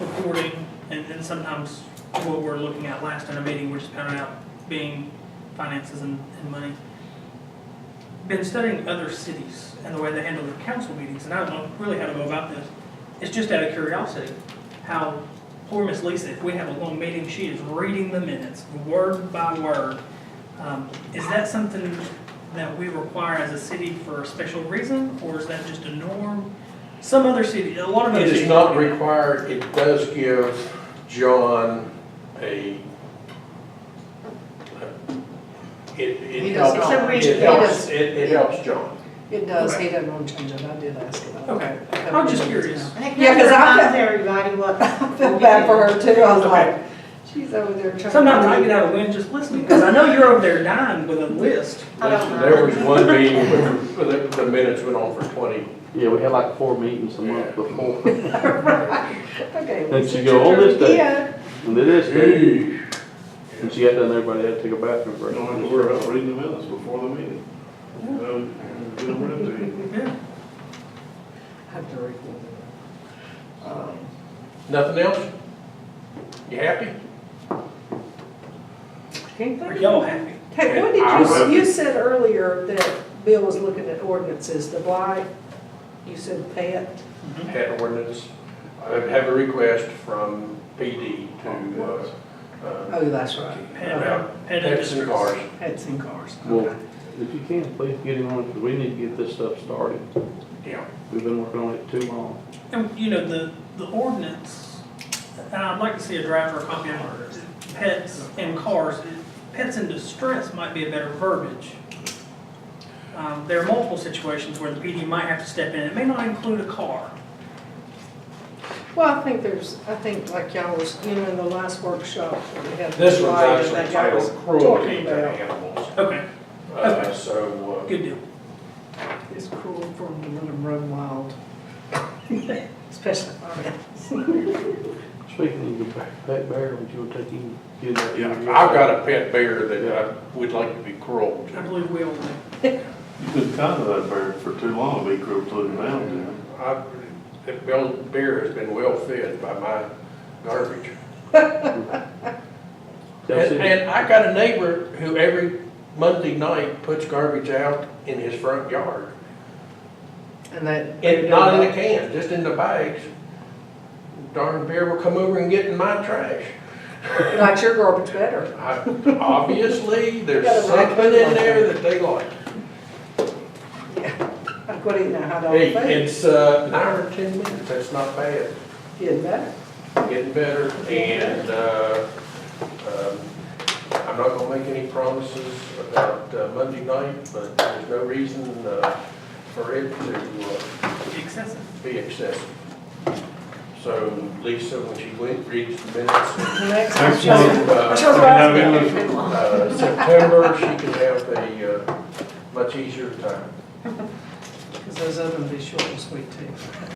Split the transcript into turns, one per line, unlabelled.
reporting, and then sometimes what we're looking at last in a meeting, we're just pounding out being finances and, and money. Been studying other cities and the way they handle their council meetings, and I don't know really how to go about this. It's just out of curiosity, how poor Miss Lisa, if we have a long meeting, she is reading the minutes, word by word. Um, Is that something that we require as a city for a special reason, or is that just a norm? Some other city, a lot of other
It
cities.
is not required, it does give John a, it,
He
it
does
helps,
not.
it helps, it, it helps John.
It does, he doesn't want to change it, I did ask about it.
Okay, I'm just curious.
Yeah, 'cause I-
Reminds everybody what.
I feel bad for her too, I was
Okay.
like, she's over there trying to.
Sometimes I get out of wind just listening, because I know you're over there dying with a list.
I don't know.
There was one meeting where the, the minutes went on for twenty.
Yeah, we had like four meetings a month before.
Okay.
And she go, "Oh, this day."
Yeah,
And it is, big.
Hey,
and she got done, everybody had to take a bathroom
you
break.
don't have to worry about reading the minutes before the meeting. No, get them read to you.
Yeah.
I have to record it. Um,
Nothing else? You happy?
Can't
Are
think.
y'all happy?
Hey, what
I
did
would-
you, you said earlier that Bill was looking at ordinances, the blight, you said pet.
Had an ordinance, I have a request from PD to, uh, uh,
Oh, that's right. Okay.
Pet- Pet
pets and
industries.
cars.
Pets and cars,
Well,
okay.
if you can, please get him on, 'cause we need to get this stuff started.
Yeah.
We've been working on it too long.
And, you know, the, the ordinance, and I'd like to see a draft or a copy of it. Pets and cars, pets in distress might be a better verbiage. Um, there are multiple situations where the PD might have to step in. It may not include a car.
Well, I think there's, I think like y'all was, you know, in the last workshop, where we had. the
This one's
blight,
actually
that y'all was
titled cruelty
talking
to
about.
animals.
Okay,
Uh, so, uh,
good deal.
It's cruel for them to let them run wild. Especially our
Speaking of the back, back bear, would you wanna take him? get him out?
Yeah, I've got a pet bear that I would like to be cruel
I
to.
believe we all do.
You've been kind to that bird for too long, be cruel to him now, dude.
I- That bell- bear has been well fed by my garbage.
Y'all
And,
see-
and I got a neighbor who every Monday night puts garbage out in his front yard.
And that.
And not in a can, just in the bags. Darn bear will come over and get in my trash.
Not your garbage better.
I- Obviously,
Got
there's
a rack.
something in there that they like.
I couldn't even hide all
Hey,
the food.
it's, uh, nine or ten minutes, that's not bad.
Getting better.
getting better, and, uh, um, I'm not gonna make any promises about uh, Monday night, but there's no reason, uh, for it to uh,
Excessive.
be excessive. So Lisa, when she went, reads the minutes,
Next.
Next
one.
one.
uh,
That's what I was
Now,
asking.
uh, September, she can have a, uh, much easier time.
Because those other ones be short and sweet too.